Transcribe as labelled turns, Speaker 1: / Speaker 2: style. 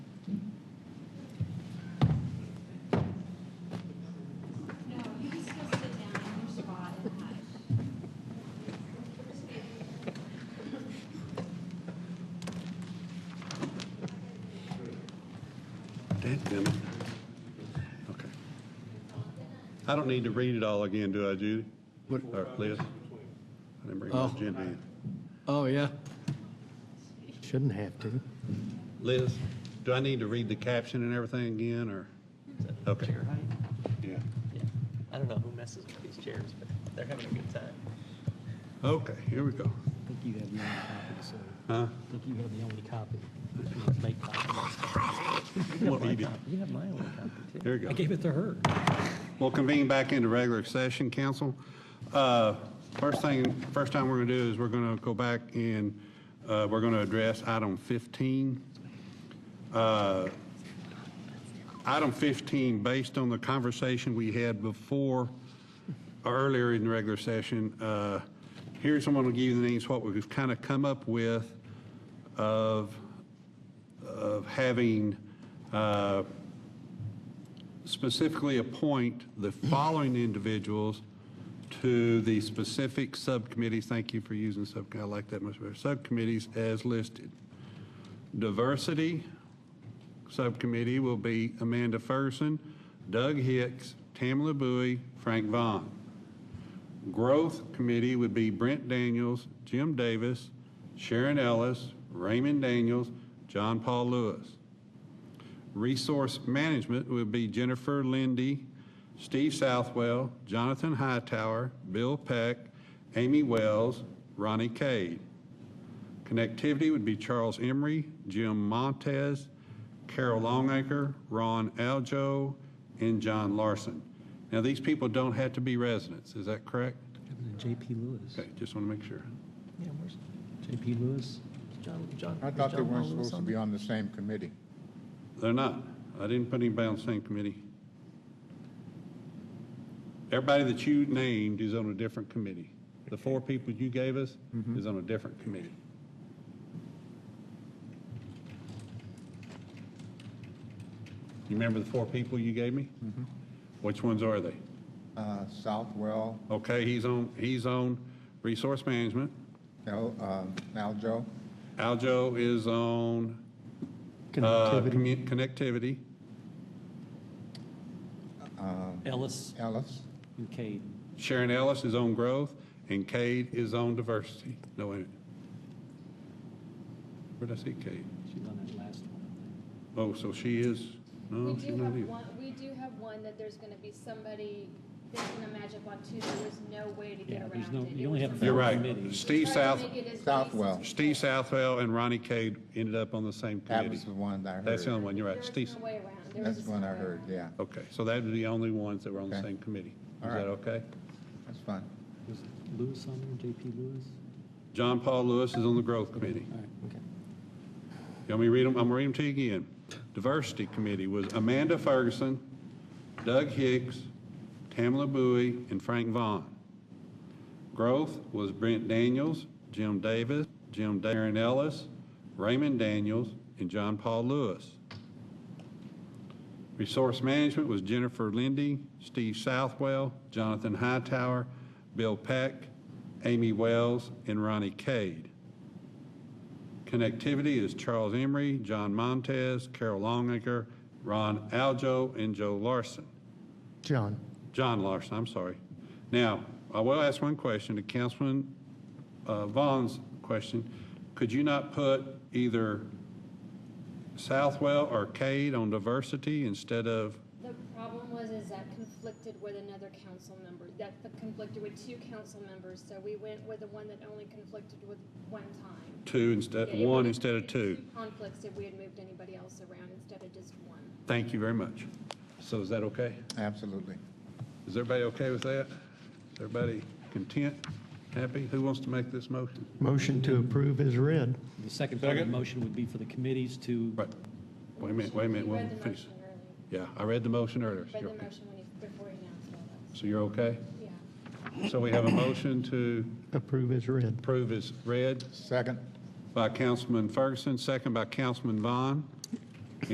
Speaker 1: Dadgummit. Okay. I don't need to read it all again, do I, Judy?
Speaker 2: What-
Speaker 1: Or Liz? I didn't bring my
Speaker 2: Oh.
Speaker 1: agenda in.
Speaker 2: Oh, yeah. Shouldn't have to.
Speaker 1: Liz, do I need to read the caption and everything again, or? Okay.
Speaker 3: Chair height.
Speaker 1: Yeah.
Speaker 3: Yeah. I don't know who messes with these chairs, but they're having a good time.
Speaker 1: Okay, here we go.
Speaker 4: I think you have the only copy, so
Speaker 1: Huh?
Speaker 4: I think you have the only copy. You must Make copies.
Speaker 1: What we did.
Speaker 3: You have my only copy, too.
Speaker 1: Here we go.
Speaker 4: I gave it to her.
Speaker 1: We'll convene back into regular session, council. Uh, First thing, first time we're going to do is we're going to go back and uh, we're going to address item 15. Uh, Item 15, based on the conversation we had before, earlier in the regular session, uh, here's, I'm going to give you the names, what we've kind of come up with of, of having uh, specifically appoint the following individuals to the specific subcommittees, thank you for using sub, I like that much better, subcommittees as listed. Diversity Subcommittee will be Amanda Ferguson, Doug Hicks, Tamla Bowie, Frank Vaughn. Growth Committee would be Brent Daniels, Jim Davis, Sharon Ellis, Raymond Daniels, John Paul Lewis. Resource Management would be Jennifer Lindy, Steve Southwell, Jonathan Hightower, Bill Peck, Amy Wells, Ronnie Cade. Connectivity would be Charles Emery, Jim Montez, Carol Longacre, Ron Aljo, and John Larson. Now, these people don't have to be residents, is that correct?
Speaker 4: Happened to JP Lewis.
Speaker 1: Okay, just want to make sure.
Speaker 3: Yeah, where's
Speaker 4: JP Lewis.
Speaker 3: John, John?
Speaker 5: I
Speaker 3: is
Speaker 5: thought they
Speaker 3: John
Speaker 5: weren't
Speaker 3: Paul Lewis
Speaker 5: supposed to
Speaker 3: on
Speaker 5: be on the same committee.
Speaker 1: They're not. I didn't put anybody on the same committee. Everybody that you named is on a different committee. The four people you gave us is on a different committee. You remember the four people you gave me? Which ones are they?
Speaker 5: Uh, Southwell,
Speaker 1: Okay, he's on, he's on resource management.
Speaker 5: El- um, Aljo,
Speaker 1: Aljo is on, uh,
Speaker 4: Connectivity.
Speaker 1: commu- connectivity.
Speaker 4: Ellis
Speaker 5: Ellis,
Speaker 4: and Cade.
Speaker 1: Sharon Ellis is on growth, and Cade is on diversity. No, wait a minute. Where'd I see Cade?
Speaker 4: She's on that last one.
Speaker 1: Oh, so she is,
Speaker 6: We
Speaker 1: no, she's
Speaker 6: do
Speaker 1: not
Speaker 6: have
Speaker 1: either.
Speaker 6: one, we do have one that there's gonna be somebody that's gonna match up on two, there was no way to get
Speaker 4: Yeah,
Speaker 6: around it.
Speaker 4: there's no,
Speaker 6: It
Speaker 4: you only
Speaker 6: was
Speaker 4: have.
Speaker 6: a-
Speaker 1: You're right.
Speaker 4: committee.
Speaker 1: Steve
Speaker 6: Tried to
Speaker 1: South,
Speaker 6: make it as
Speaker 5: Southwell.
Speaker 6: nice as-
Speaker 1: Steve Southwell and Ronnie Cade ended up on the same
Speaker 5: that
Speaker 1: committee.
Speaker 5: was the one that I heard.
Speaker 1: That's the only one, you're right,
Speaker 6: There's
Speaker 1: Steve.
Speaker 6: no way around. There was
Speaker 5: That's
Speaker 6: just
Speaker 5: the one
Speaker 6: no
Speaker 5: I
Speaker 6: way
Speaker 5: heard,
Speaker 6: around.
Speaker 5: yeah,
Speaker 1: Okay, so that'd be the only ones that were on the
Speaker 5: Okay.
Speaker 1: same committee.
Speaker 5: All
Speaker 1: Is
Speaker 5: right.
Speaker 1: that okay?
Speaker 5: that's fine.
Speaker 4: Was Lewis on there, JP Lewis?
Speaker 1: John Paul Lewis is on the growth committee.
Speaker 4: All right, okay.
Speaker 1: You want me to read them? I'm gonna read them to you again. Diversity Committee was Amanda Ferguson, Doug Hicks, Tamla Bowie, and Frank Vaughn. Growth was Brent Daniels, Jim Davis, Jim Darren Ellis, Raymond Daniels, and John Paul Lewis. Resource Management was Jennifer Lindy, Steve Southwell, Jonathan Hightower, Bill Peck, Amy Wells, and Ronnie Cade. Connectivity is Charles Emery, John Montez, Carol Longacre, Ron Aljo, and Joe Larson.
Speaker 2: John.
Speaker 1: John Larson, I'm sorry. Now, I will ask one question, to Councilman uh, Vaughn's question. Could you not put either Southwell or Cade on diversity instead of,
Speaker 6: The problem was is that conflicted with another council member, that the conflicted with two council members, so we went with the one that only conflicted with one time.
Speaker 1: two
Speaker 6: Yeah,
Speaker 1: instead,
Speaker 6: it
Speaker 1: one
Speaker 6: would've
Speaker 1: instead of
Speaker 6: been
Speaker 1: two?
Speaker 6: Conflicts if we had moved anybody else around instead of just one.
Speaker 1: Thank you very much. So is that okay?
Speaker 5: Absolutely.
Speaker 1: Is everybody okay with that? Is everybody content, happy? Who wants to make this motion?
Speaker 2: Motion to approve is read.
Speaker 4: The second part of the
Speaker 1: Second.
Speaker 4: motion would be for the committees to,
Speaker 1: Right. Wait a minute, wait a minute,
Speaker 6: You
Speaker 1: we'll
Speaker 6: read the
Speaker 1: finish.
Speaker 6: motion earlier.
Speaker 1: Yeah, I read the motion earlier.
Speaker 6: Read the motion when he, before he announced all that,
Speaker 1: So you're okay?
Speaker 6: yeah.
Speaker 1: So we have a motion to
Speaker 2: Approve is read.
Speaker 1: approve as read
Speaker 5: Second,
Speaker 1: by Councilman Ferguson, second by Councilman Vaughn.